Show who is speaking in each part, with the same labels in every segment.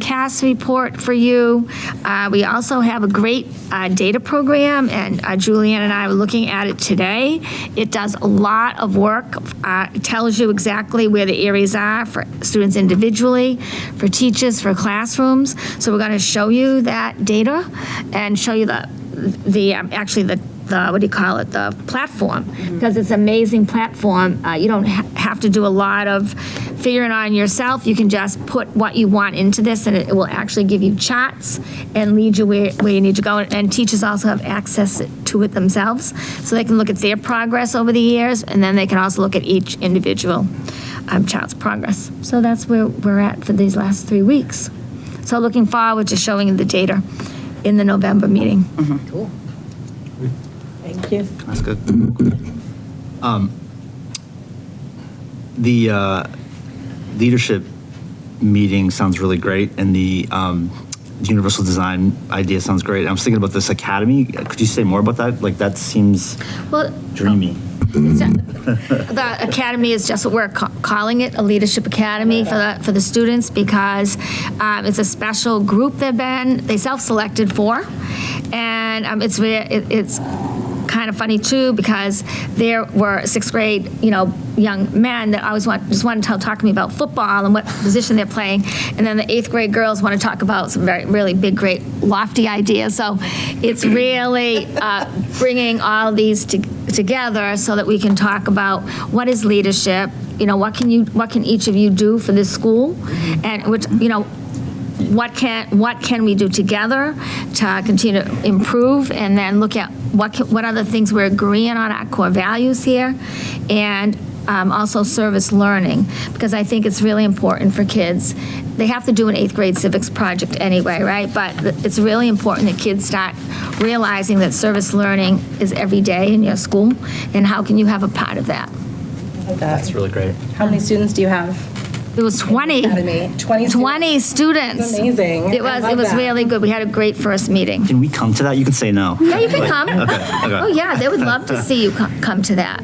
Speaker 1: CAS report for you. Uh, We also have a great uh, data program, and uh, Julianne and I were looking at it today. It does a lot of work, uh, It tells you exactly where the areas are for students individually, for teachers, for classrooms. So we're going to show you that data and show you the, the, um, actually, the, the what do you call it, the platform, because it's an amazing platform. Uh, You don't ha- have to do a lot of figuring on yourself. You can just put what you want into this, and it will actually give you charts and lead you where where you need to go. And teachers also have access to it themselves, so they can look at their progress over the years, and then they can also look at each individual um, child's progress. So that's where we're at for these last three weeks. So looking forward to showing you the data in the November meeting.
Speaker 2: Thank you.
Speaker 3: That's good. Um, The uh, leadership meeting sounds really great, and the um, the universal design idea sounds great. I was thinking about this academy. Could you say more about that? Like, that seems
Speaker 1: Well,
Speaker 3: dreamy.
Speaker 1: the academy is just what we're ca- calling it, a leadership academy for the, for the students, because um, it's a special group they've been, they self-selected for. And um, it's, where- it- it's kind of funny too, because there were sixth grade, you know, young men that always want, just want to tell, talk to me about football and what position they're playing. And then the eighth grade girls want to talk about some very, really big, great lofty ideas. So it's really uh, bringing all these to- together so that we can talk about what is leadership, you know, what can you, what can each of you do for this school? And which, you know, what can, what can we do together to continue to improve? And then look at what, can- what other things we're agreeing on, our core values here, and um, also service learning, because I think it's really important for kids. They have to do an eighth grade civics project anyway, right? But th- it's really important that kids start realizing that service learning is every day in your school, and how can you have a part of that?
Speaker 3: That's really great.
Speaker 2: How many students do you have?
Speaker 1: It was 20.
Speaker 2: Academy. 20 students.
Speaker 1: 20 students.
Speaker 2: Amazing.
Speaker 1: It
Speaker 2: I
Speaker 1: was,
Speaker 2: love
Speaker 1: it was
Speaker 2: that.
Speaker 1: really good. We had a great first meeting.
Speaker 3: Can we come to that? You can say no.
Speaker 1: Yeah, you can come.
Speaker 3: okay.
Speaker 1: Oh, yeah, they would love to see you co- come to that.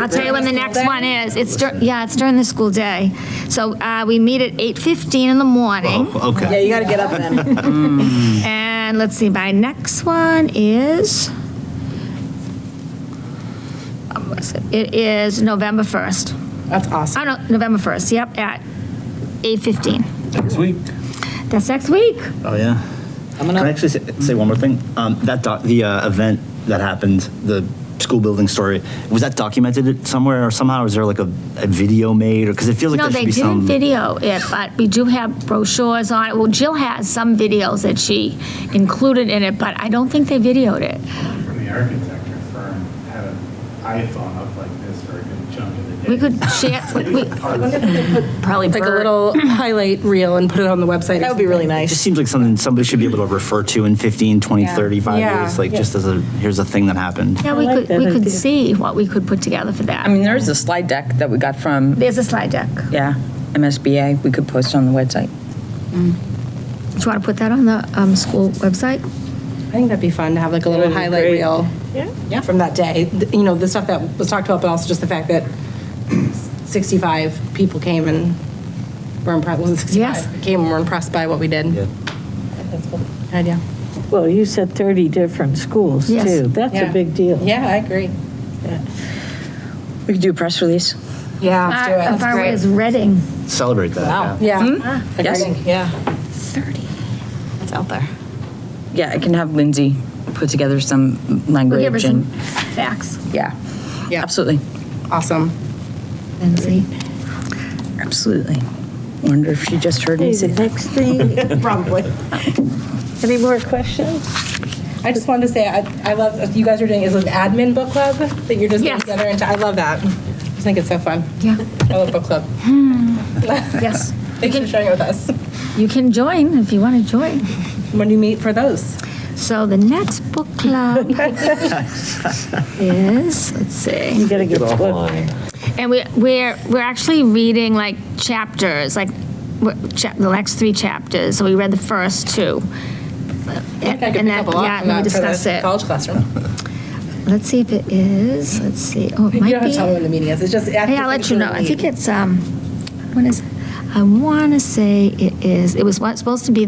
Speaker 1: I'll tell you when the next one is. It's, dur- yeah, it's during the school day. So uh, we meet at 8:15 in the morning,
Speaker 3: Oh,
Speaker 2: Yeah,
Speaker 3: Okay.
Speaker 2: you gotta get up then.
Speaker 3: Oh.
Speaker 1: and let's see, my next one is, um, what is it It is November 1st.
Speaker 2: That's awesome.
Speaker 1: Oh, no, November 1st, yep, at 8:15.
Speaker 3: Next week.
Speaker 1: That's next week.
Speaker 3: Oh, yeah. Can I actually say, say one more thing? Um, that doc, the uh, event that happened, the school building story, was that documented somewhere or somehow? Is there like a, a video made? Or because it feels like
Speaker 1: No,
Speaker 3: there should
Speaker 1: they
Speaker 3: be
Speaker 1: didn't
Speaker 3: some.
Speaker 1: video it, but we do have brochures on it. Well, Jill has some videos that she included in it, but I don't think they videoed it.
Speaker 4: from the architecture firm had an iPhone up like this for a good chunk of the day.
Speaker 1: We could share, we,
Speaker 5: Probably
Speaker 6: like a
Speaker 5: Bert.
Speaker 6: little highlight reel and put it on the website.
Speaker 2: That would be really
Speaker 3: It just
Speaker 2: nice.
Speaker 3: seems like something somebody should be able to refer to in 15, 20, 35
Speaker 6: Yeah.
Speaker 3: years, like just as a here's a thing that happened.
Speaker 1: yeah, we could, we could see what we could put together for
Speaker 5: I
Speaker 1: that.
Speaker 5: mean, there's a slide deck that we got from,
Speaker 1: There's a slide deck. Do
Speaker 5: yeah, MSBA. We could post on the website.
Speaker 1: you want to put that on the um, school website?
Speaker 6: I think that'd be fun to have like a little highlight reel. Yeah. From that day, Th- you know, the stuff that was talked about, but also just the fact that 65 people came and were impressed, was it
Speaker 1: Yes.
Speaker 6: 65? Came and were impressed by what we did.
Speaker 3: Yeah.
Speaker 6: Idea.
Speaker 7: Well, you said 30 different schools,
Speaker 1: Yes.
Speaker 7: too. That's a
Speaker 6: Yeah.
Speaker 7: big deal.
Speaker 6: Yeah, I agree.
Speaker 5: We could do a press release.
Speaker 6: Yeah, let's do it.
Speaker 1: As far away as Reading.
Speaker 3: Celebrate that. yeah.
Speaker 6: Yeah.
Speaker 5: Yes.
Speaker 6: Agree. Yeah. 30. It's out there.
Speaker 5: Yeah, I can have Lindsay put together some
Speaker 1: We'll give her
Speaker 5: language
Speaker 1: some
Speaker 5: and,
Speaker 1: facts,
Speaker 5: yeah.
Speaker 6: Yeah.
Speaker 5: Absolutely,
Speaker 6: Awesome.
Speaker 1: Lindsay.
Speaker 5: absolutely. Wonder if she just heard
Speaker 7: Hey,
Speaker 5: me
Speaker 7: the
Speaker 5: say that.
Speaker 7: next thing,
Speaker 6: Probably.
Speaker 7: any more questions?
Speaker 6: I just wanted to say, I, I love, you guys are doing, is it an admin book club that you're just
Speaker 1: Yes.
Speaker 6: getting together into? I love that. I just think it's so fun.
Speaker 1: Yeah.
Speaker 6: I love book club.
Speaker 1: Yes,
Speaker 6: Thanks for sharing it with us.
Speaker 1: you can join if you want to join.
Speaker 6: When do you meet for those?
Speaker 1: So the next book club is, let's see.
Speaker 7: You gotta get to work.
Speaker 1: And we, we're, we're actually reading like chapters, like we're- cha- the next three chapters. So we read the first two.
Speaker 6: I think I could pick up a lot
Speaker 1: yeah,
Speaker 6: from
Speaker 1: and we
Speaker 6: that for
Speaker 1: discuss
Speaker 6: the
Speaker 1: it.
Speaker 6: college classroom.
Speaker 1: Let's see if it is, let's see, oh, it
Speaker 6: You
Speaker 1: might
Speaker 6: don't have to tell me
Speaker 1: be.
Speaker 6: when the meeting is. It's just.
Speaker 1: Hey, I'll let you know. I think it's, um, when is, I want to say it is, it was what- supposed to be